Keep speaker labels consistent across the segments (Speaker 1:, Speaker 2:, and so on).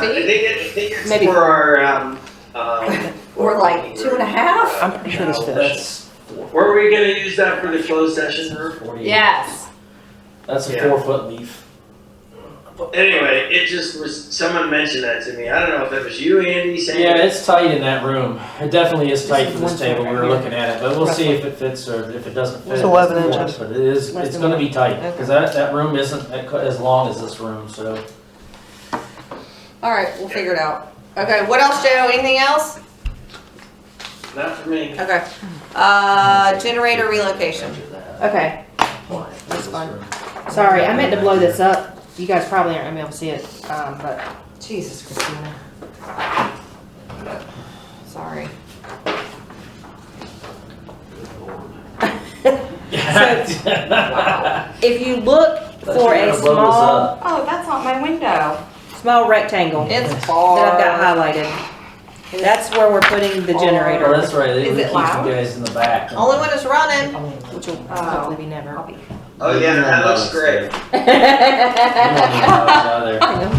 Speaker 1: I
Speaker 2: feet?
Speaker 1: think it, I think it's
Speaker 2: Maybe.
Speaker 1: for our, um, um.
Speaker 2: Or like two and a half?
Speaker 3: I'm pretty sure this
Speaker 1: No,
Speaker 3: fish.
Speaker 1: that's- Were we gonna use that for the closed session room?
Speaker 4: Forty-eight.
Speaker 2: Yes.
Speaker 4: That's a
Speaker 1: Yeah.
Speaker 4: four-foot leaf.
Speaker 1: Anyway, it just was, someone mentioned that to me. I don't know if it was you, Andy, saying.
Speaker 4: Yeah, it's tight in that room. It definitely is tight
Speaker 3: This
Speaker 4: for
Speaker 3: is one
Speaker 4: this table. We
Speaker 3: side
Speaker 4: were
Speaker 3: right
Speaker 4: looking at it, but we'll see if it fits or if it doesn't fit.
Speaker 3: It's 11
Speaker 4: it's the one,
Speaker 3: inches.
Speaker 4: But it is,
Speaker 3: Less
Speaker 4: it's
Speaker 3: than
Speaker 4: gonna be tight,
Speaker 3: Okay.
Speaker 4: cause that, that room isn't that co- as long as this room, so.
Speaker 2: All right, we'll figure it out. Okay, what else, Joe? Anything else?
Speaker 1: Not for me.
Speaker 2: Okay. Uh, generator relocation.
Speaker 5: Okay,
Speaker 4: That's
Speaker 5: fine. sorry, I meant to blow this up. You guys probably aren't gonna be able to see it, um, but
Speaker 2: Jesus, Christina. Sorry.
Speaker 4: Yeah.
Speaker 5: if you look for
Speaker 4: you're
Speaker 5: a
Speaker 4: gonna blow this
Speaker 5: small,
Speaker 2: Oh, that's not my window.
Speaker 5: small rectangle that
Speaker 2: It's
Speaker 5: I've
Speaker 2: far.
Speaker 5: got highlighted, that's where we're putting the
Speaker 2: Or-
Speaker 4: Oh,
Speaker 5: generator,
Speaker 4: that's right. They
Speaker 2: Is
Speaker 4: would
Speaker 2: it
Speaker 4: keep
Speaker 2: loud?
Speaker 4: you guys in the back.
Speaker 2: Only one is running.
Speaker 5: which will
Speaker 2: Oh.
Speaker 5: hopefully be never.
Speaker 1: Oh, yeah, that looks great.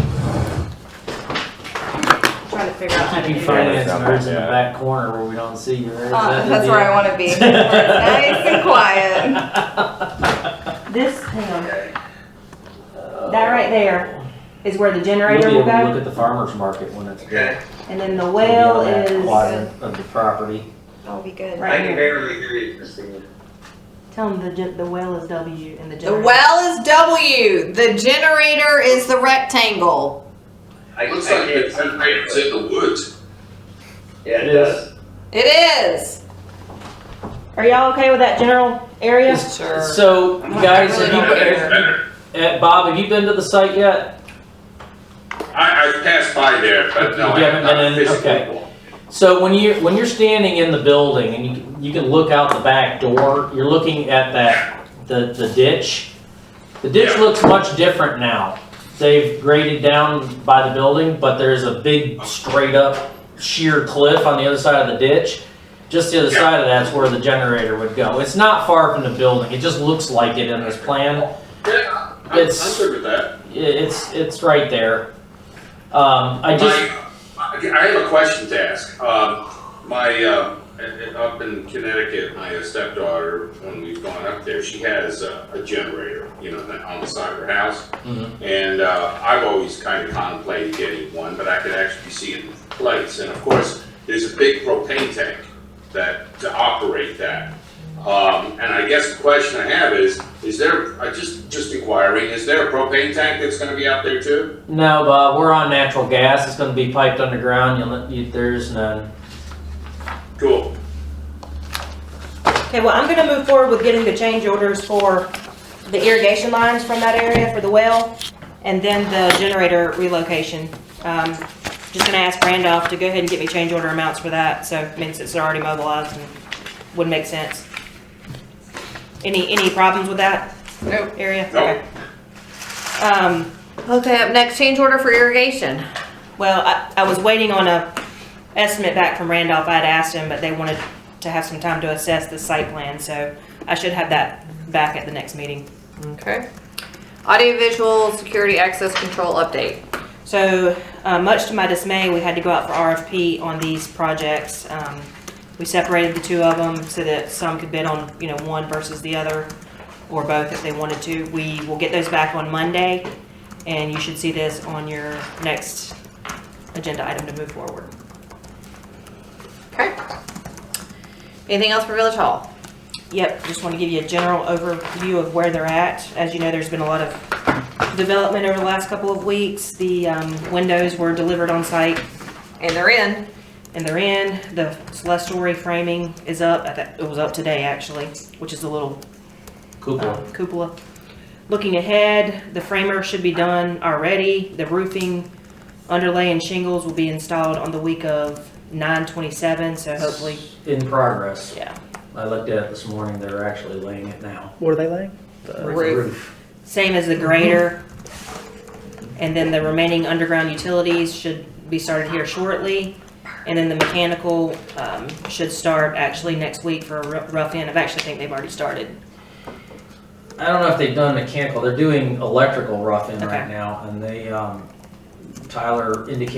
Speaker 4: Keep
Speaker 2: Trying to figure out how to
Speaker 4: you
Speaker 2: do that.
Speaker 4: finance nerds in the back corner where we don't see you. Is that
Speaker 2: Uh,
Speaker 4: the
Speaker 2: that's where I
Speaker 4: deal?
Speaker 2: want to be. Nice and quiet.
Speaker 5: This, hang on,
Speaker 1: Okay.
Speaker 5: that right there is where the
Speaker 4: You'll
Speaker 5: generator
Speaker 4: be
Speaker 5: will
Speaker 4: able to look
Speaker 5: go,
Speaker 4: at the farmer's market when it's.
Speaker 1: Okay.
Speaker 5: and then the
Speaker 4: Maybe
Speaker 5: well
Speaker 4: on that
Speaker 5: is,
Speaker 4: Quadrant of the property.
Speaker 2: That'll be good.
Speaker 1: I
Speaker 5: Right
Speaker 1: can
Speaker 5: here.
Speaker 1: barely hear you, Christina.
Speaker 5: tell them the, gen- the well is W and the
Speaker 2: The
Speaker 5: generator.
Speaker 2: well is W. The generator is the rectangle.
Speaker 1: I I
Speaker 6: Looks like
Speaker 1: can't
Speaker 6: the
Speaker 1: see.
Speaker 6: generator's in the woods.
Speaker 1: Yeah, it
Speaker 4: It is.
Speaker 1: does.
Speaker 2: It is.
Speaker 5: Are y'all okay with that general area?
Speaker 2: Sure.
Speaker 4: So,
Speaker 2: I'm not
Speaker 4: guys,
Speaker 2: really
Speaker 4: have
Speaker 2: not
Speaker 4: you,
Speaker 2: aware.
Speaker 4: have-
Speaker 6: Better.
Speaker 4: eh, Bob, have you been to the site yet?
Speaker 6: I, I passed by there, but no, I
Speaker 4: You
Speaker 6: have
Speaker 4: haven't
Speaker 6: not
Speaker 4: been in?
Speaker 6: officially
Speaker 4: Okay.
Speaker 6: walked.
Speaker 4: So when you, when you're standing in the building and you, can- you can look out the back door, you're looking at that, the, the ditch. The ditch
Speaker 6: Yeah.
Speaker 4: looks much different now. They've graded down by the building, but there's a big straight up sheer cliff on the other side of the ditch. Just the other
Speaker 6: Yeah.
Speaker 4: side of that's where the generator would go. It's not far from the building. It just looks like it in this plan.
Speaker 6: Yeah, I'm, I'm
Speaker 4: It's-
Speaker 6: good with that.
Speaker 4: It- It's, it's right there. Um, I just,
Speaker 6: My, I have a question to ask. Um, my, uh, up in Connecticut, my stepdaughter, when we've gone up there, she has a, a generator, you know, on the side of her house.
Speaker 4: Mhm.
Speaker 6: And, uh, I've always kind of contemplated getting one, but I could actually see it in place. And of course, there's a big propane tank that, to operate that. Um, and I guess the question I have is, is there, I just, just inquiring, is there a propane tank that's gonna be out there too?
Speaker 4: no, Bob, we're on natural gas. It's gonna be piped underground. You'll, you, there's none.
Speaker 6: Cool.
Speaker 5: Okay, well, I'm gonna move forward with getting the change orders for the irrigation lines from that area for the well, and then the generator relocation. Um, just gonna ask Randolph to go ahead and get me change order amounts for that, so it means it's already mobilized and would make sense. Any, any problems with that?
Speaker 2: Nope.
Speaker 5: Area?
Speaker 6: Nope.
Speaker 5: Okay. Um,
Speaker 2: Okay, up next, change order for irrigation.
Speaker 5: Well, I, I was waiting on a estimate back from Randolph. I had asked him, but they wanted to have some time to assess the site plan, so I should have that back at the next meeting.
Speaker 2: Okay. Audiovisual security access control update.
Speaker 5: So, uh, much to my dismay, we had to go out for RFP on these projects. Um, we separated the two of them so that some could bid on, you know, one versus the other, or both if they wanted to. We will get those back on Monday, and you should see this on your next agenda item to move forward.
Speaker 2: Okay. Anything else for Village Hall?
Speaker 5: Yep, just want to give you a general overview of where they're at. As you know, there's been a lot of development over the last couple of weeks. The um, windows were delivered on site
Speaker 2: And they're in.
Speaker 5: and they're in. The celestial framing is up. I thi- It was up today, actually, which is a little
Speaker 4: Cupola.
Speaker 5: uh, cupola. Looking ahead, the framer should be done already. The roofing, underlay, and shingles will be installed on the week of 9/27, so hopefully,
Speaker 4: In progress.
Speaker 5: yeah.
Speaker 4: I looked at it this morning, they're actually laying it now.
Speaker 3: What are they laying?
Speaker 2: Roof.
Speaker 5: Same as the grader. And then the remaining underground utilities should be started here shortly. And then the mechanical um, should start actually next week for a rou- rough end. I actually think they've already started.
Speaker 4: I don't know if they've done mechanical, they're doing electrical roughing right
Speaker 5: Okay.
Speaker 4: now, and they, um, Tyler indicated